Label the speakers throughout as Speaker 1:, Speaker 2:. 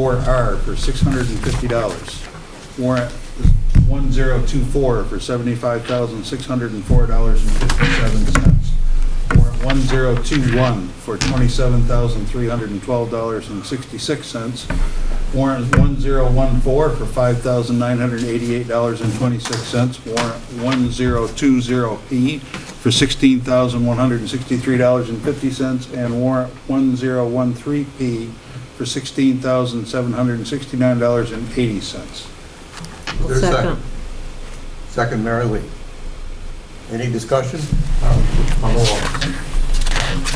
Speaker 1: 4R for $650. Warrant 1024 for $75,604.57. Warrant 1021 for $27,312.66. Warrant 1014 for $5,988.26. Warrant 1020P for $16,163.50. And warrant 1013P for $16,769.80.
Speaker 2: Is there a
Speaker 3: Second.
Speaker 2: Second, Mary Lee. Any discussion? On the wall.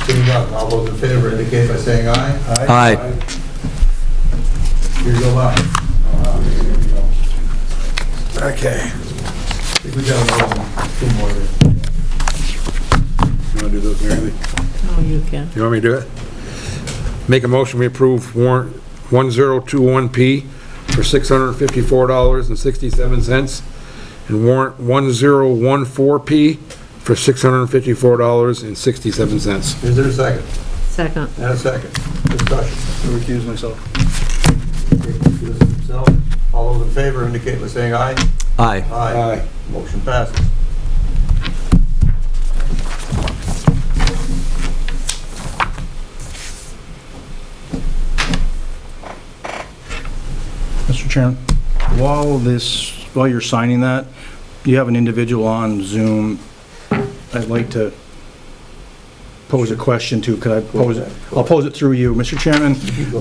Speaker 2: Seeing none, all those in favor indicate by saying aye.
Speaker 4: Aye.
Speaker 2: Here you go, aye. Okay. I think we got another one, two more there.
Speaker 5: You want to do those, Mary Lee?
Speaker 3: Oh, you can.
Speaker 5: You want me to do it? Make a motion, we approve warrant 1021P for $654.67 and warrant 1014P for $654.67.
Speaker 2: Is there a second?
Speaker 3: Second.
Speaker 2: And a second. Discussion.
Speaker 1: I recuse myself.
Speaker 2: All those in favor indicate by saying aye.
Speaker 4: Aye.
Speaker 5: Ah,
Speaker 2: Aye. Motion passes.
Speaker 6: Mr. Chairman, while this, while you're signing that, you have an individual on Zoom. I'd like to pose a question to, could I pose it? I'll pose it through you, Mr. Chairman.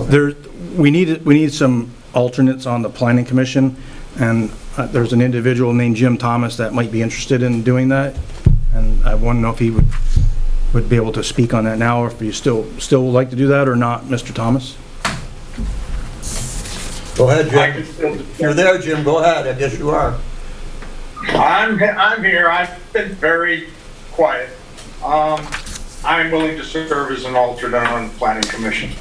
Speaker 6: There, we need, we need some alternates on the planning commission, and uh, there's an individual named Jim Thomas that might be interested in doing that, and I want to know if he would, would be able to speak on that now, or if you still, still would like to do that or not, Mr. Thomas?
Speaker 2: Go ahead,
Speaker 7: I
Speaker 2: Jim.
Speaker 7: can still-
Speaker 2: You're there, Jim, go ahead, I guess you are.
Speaker 7: I'm, I'm here, I've been very quiet. Um, I'm willing to serve as an alternate on the planning commission.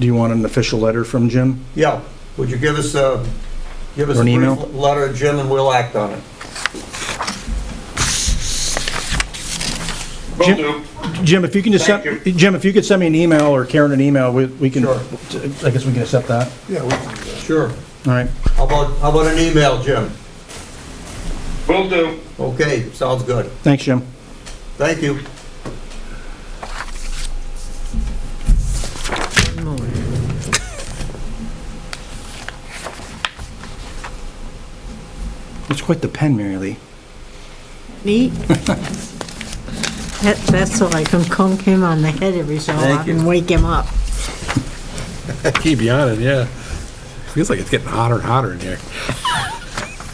Speaker 6: Do you want an official letter from Jim?
Speaker 2: Yeah, would you give us a, give us a
Speaker 6: Or an email?
Speaker 2: brief letter, Jim, and we'll act on it.
Speaker 7: Will
Speaker 6: Jim-
Speaker 7: do.
Speaker 6: Jim, if you can just,
Speaker 7: Thank
Speaker 6: send- Jim, if you could send me an email or Karen an email, we we can,
Speaker 2: Sure.
Speaker 6: I guess we can accept that.
Speaker 2: Sure.
Speaker 6: All right.
Speaker 2: How about, how about an email, Jim?
Speaker 7: Will do.
Speaker 2: Okay, sounds good.
Speaker 6: Thanks, Jim.
Speaker 2: Thank you.
Speaker 6: It's quite the pen, Mary Lee.
Speaker 3: Neat. That, that's so I can conk him on the head every so
Speaker 2: Thank
Speaker 3: often,
Speaker 2: you.
Speaker 3: wake him up.
Speaker 5: Keep you on it, yeah. Feels like it's getting hotter and hotter in here.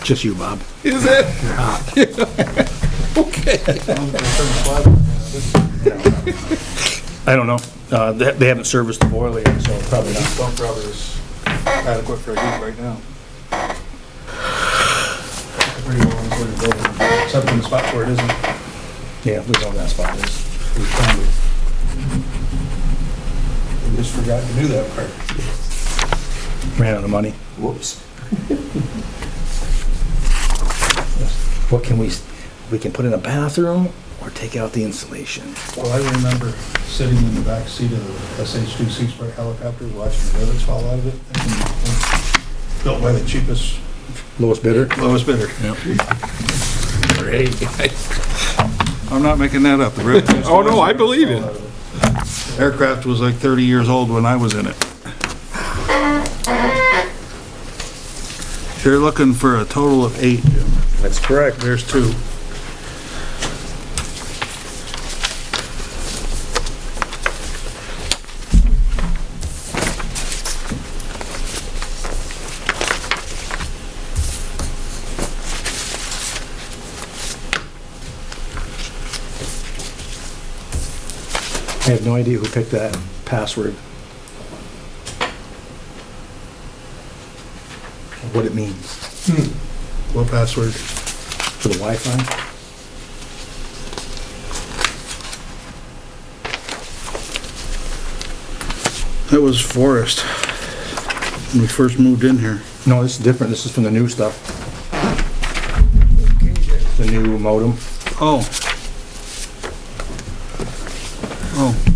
Speaker 6: Just you, Bob.
Speaker 5: Is it? Okay.
Speaker 6: I don't know. Uh, They they haven't serviced the boiler yet, so probably not.
Speaker 1: Bump rubber is adequate for a heat right now. Pretty well insulated building, Except in the spot where it isn't.
Speaker 6: Yeah, we know that spot is.
Speaker 1: We found it. We just forgot to do that part.
Speaker 6: Ran out of money.
Speaker 2: Whoops.
Speaker 6: What can we, we can put in a bathroom or take out the insulation?
Speaker 1: Well, I remember sitting in the back seat of the SH-2 Seasport helicopter, watching the rivets fall out of it. and- and Built by the cheapest,
Speaker 6: Lowest bidder?
Speaker 1: lowest bidder.
Speaker 5: Great.
Speaker 1: I'm not making that up. The rivet-
Speaker 5: Oh, no, I believe it.
Speaker 1: Aircraft was like 30 years old when I was in it. You're looking for a total of eight, Jim.
Speaker 2: That's correct.
Speaker 1: There's two.
Speaker 6: I have no idea who picked that password. What it means
Speaker 1: What password?
Speaker 6: for the Wi-Fi?
Speaker 1: That was Forrest, when we first moved in here.
Speaker 6: No, this is different. This is from the new stuff. The new modem.
Speaker 1: Oh. Oh,